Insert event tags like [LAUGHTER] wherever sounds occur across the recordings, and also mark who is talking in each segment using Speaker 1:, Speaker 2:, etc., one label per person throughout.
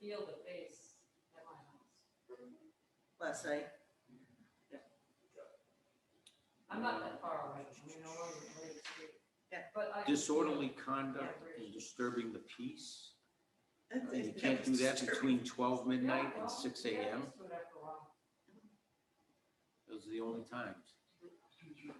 Speaker 1: feel the face at my house.
Speaker 2: last night.
Speaker 1: I'm not that far away, I mean, no longer than Lake Street.
Speaker 2: Yeah.
Speaker 1: But I. can feel-
Speaker 3: Disorderly conduct and disturbing the peace,
Speaker 2: I
Speaker 3: Uh,
Speaker 2: think
Speaker 3: you can't do
Speaker 2: was
Speaker 3: that
Speaker 2: disturbing.
Speaker 3: between twelve
Speaker 1: Yeah,
Speaker 3: midnight
Speaker 1: well,
Speaker 3: and six
Speaker 1: yeah, I
Speaker 3: AM,
Speaker 1: used to it after a while.
Speaker 3: those are the only times.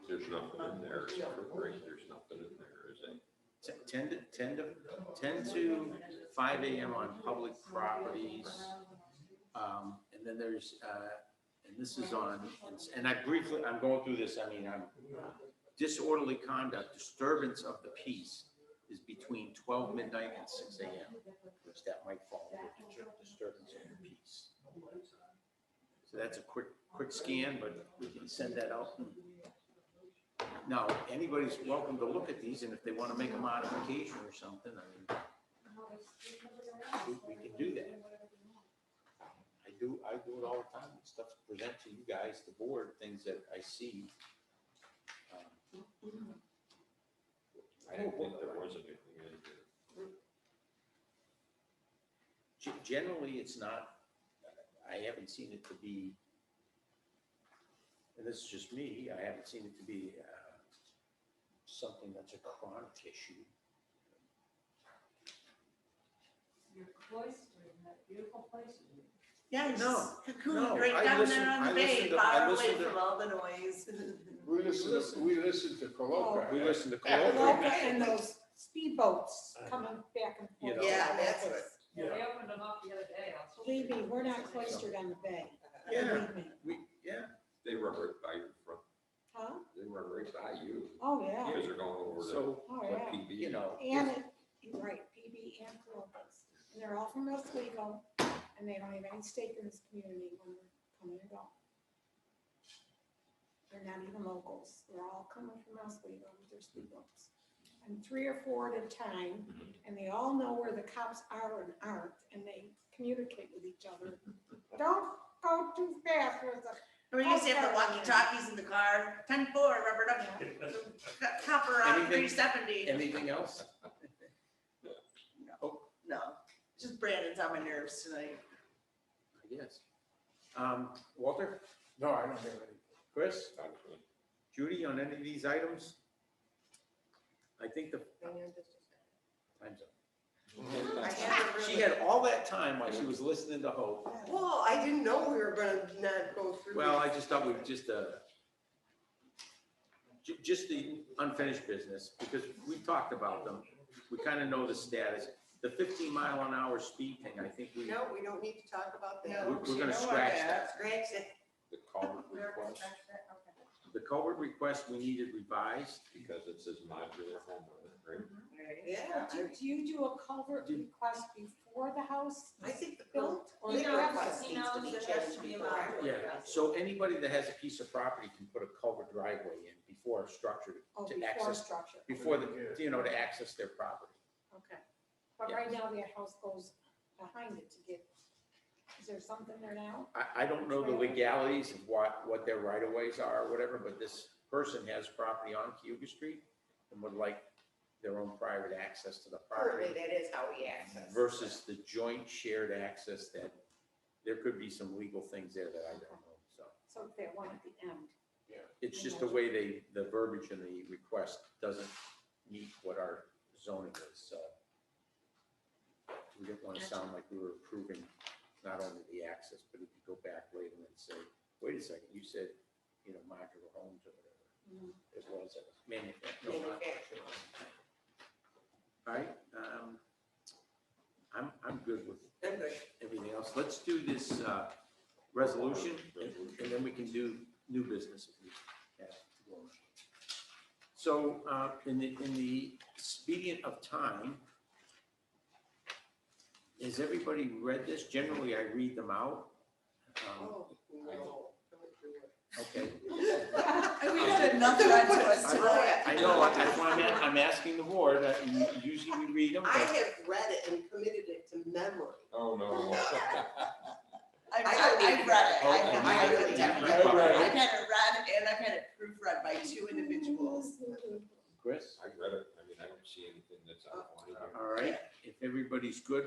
Speaker 4: There's nothing in there except for three, there's nothing in there, is there?
Speaker 3: T- Ten to, ten to, ten to five AM on public properties. Um, and then there's, uh, and this is on, and I briefly, I'm going through this, I mean, I'm, disorderly conduct, disturbance of the peace is between twelve midnight and six AM, which that might fall under distur- disturbance of the peace. So that's a quick, quick scan, but we can send that out. Now, anybody's welcome to look at these, and if they want to make a modification or something, I mean, we, we can do that. I do, I do it all the time, stuff to present to you guys, the board, things that I see. Um,
Speaker 4: I didn't think there was anything in there.
Speaker 3: Ge- Generally, it's not, I haven't seen it to be, and this is just me, I haven't seen it to be uh, something that's a chronic issue.
Speaker 1: You're cloistered in that beautiful place. you live.
Speaker 2: Yeah, no,
Speaker 3: No,
Speaker 2: cocoon
Speaker 3: no,
Speaker 2: right
Speaker 3: I
Speaker 2: down
Speaker 3: listened-
Speaker 2: there on
Speaker 3: I
Speaker 2: the bay,
Speaker 3: listened to- I
Speaker 2: far away
Speaker 3: listened to-
Speaker 2: from all the noise. [LAUGHS]
Speaker 5: We listen, to- we listen to Coloca.
Speaker 3: We listen to
Speaker 6: Well,
Speaker 3: colloquial,
Speaker 6: and those speedboats coming back and
Speaker 3: You know.
Speaker 6: forth.
Speaker 2: Yeah, that's what,
Speaker 1: Yeah, they opened them up the other day. I was so-
Speaker 6: Believe me, we're not cloistered on the bay.
Speaker 3: Yeah.
Speaker 6: Believe me.
Speaker 3: we, yeah,
Speaker 4: They run right by your front,
Speaker 6: Huh?
Speaker 4: they run right by you,
Speaker 6: Oh, yeah,
Speaker 4: because they're going over to
Speaker 3: so,
Speaker 6: oh,
Speaker 4: what
Speaker 6: yeah.
Speaker 4: PB.
Speaker 3: you know,
Speaker 6: And it, you're right, PB and Columbus. And they're all from Oswego, and they don't have any stake in this community when we're coming and going. They're not even locals. They're all coming from Oswego with their speedboats. And three or four at a time, and they all know where the cops are and aren't, and they communicate with each other. Don't go too fast with the,
Speaker 2: we used to have the walkie-talkies in the car, ten four, rubber duck, copper on
Speaker 3: Anything-
Speaker 2: three seventy.
Speaker 3: anything else? Oh,
Speaker 2: No, just Brandon's on my nerves tonight.
Speaker 3: I guess. Um, Walter,
Speaker 5: No, I don't have any.
Speaker 3: Chris?
Speaker 4: Actually,
Speaker 3: Judy, on any of these items? I think the. Time's up.
Speaker 2: I [LAUGHS] have to
Speaker 3: She
Speaker 2: really-
Speaker 3: had all that time while she was listening to Hope.
Speaker 7: Well, I didn't know we were gonna not go through.
Speaker 3: Well, I
Speaker 7: these.
Speaker 3: just thought we'd just, uh, ju- just the unfinished business, because we talked about them. We kind of know the status. The fifteen mile an hour speed thing, I think we,
Speaker 7: No, we don't need to talk about that.
Speaker 2: No,
Speaker 3: we're
Speaker 2: you
Speaker 3: gonna
Speaker 2: know what,
Speaker 3: scratch
Speaker 2: yeah,
Speaker 3: that.
Speaker 2: Scratch that.
Speaker 4: The culvert request,
Speaker 1: Well,
Speaker 3: the culvert request we needed revised.
Speaker 4: because it says modular home, on it, right?
Speaker 2: Yeah.
Speaker 6: do do you do a culvert request before the house
Speaker 7: I think the bill,
Speaker 6: built? or
Speaker 7: Legal
Speaker 6: after?
Speaker 7: request.
Speaker 1: He
Speaker 2: needs to
Speaker 1: knows
Speaker 2: be
Speaker 1: that there
Speaker 2: checked
Speaker 1: should be a
Speaker 2: before.
Speaker 1: lot of
Speaker 3: Yeah,
Speaker 1: requests.
Speaker 3: so anybody that has a piece of property can put a culvert driveway in before a structure,
Speaker 6: Oh,
Speaker 3: To
Speaker 6: before
Speaker 3: access-
Speaker 6: structure,
Speaker 3: before the, you know, to access their property.
Speaker 6: okay. But
Speaker 3: Yeah.
Speaker 6: right now, that house goes behind it to get, is there something there now?
Speaker 3: I, I don't know the legalities of what, what their right of ways are or whatever, but this person has property on Cuba Street and would like their own private access to the
Speaker 7: currently,
Speaker 3: property
Speaker 7: that is how we access.
Speaker 3: versus the joint shared access that there could be some legal things there that I don't know, so.
Speaker 6: So if that one at the end,
Speaker 3: It's just the way they, the verbiage in the request doesn't meet what our zoning is, so. We didn't want to sound like we were approving not only the access, but if you go back later and say, wait a second, you said, you know, modular homes or whatever. It was, it was Mm-hmm. manufactured. All right, um, I'm, I'm good with everything else. Let's do this, uh, resolution and and then we can do new business. if we have to go on. So, uh, in the, in the expedient of time, has everybody read this? Generally, I read them out. Um,
Speaker 7: Oh, no. Don't do it.
Speaker 3: Okay.
Speaker 2: And we had another one to us
Speaker 7: I-
Speaker 3: I know, I- that's why I'm, a- I'm asking the board. uh, u- Usually we read them,
Speaker 7: I
Speaker 3: but
Speaker 7: have read it and committed it to memory.
Speaker 4: Oh, no. [LAUGHS]
Speaker 2: I've,
Speaker 7: I
Speaker 2: I've read
Speaker 7: don't
Speaker 2: it,
Speaker 7: even-
Speaker 3: Oh,
Speaker 2: I've had,
Speaker 7: I
Speaker 2: I've
Speaker 7: really
Speaker 2: had it
Speaker 7: don't.
Speaker 2: I've had it read and I've had it proofread by two individuals.
Speaker 3: Chris,
Speaker 4: I read it, I mean, I don't see anything that's outlined.
Speaker 3: all right, if everybody's good,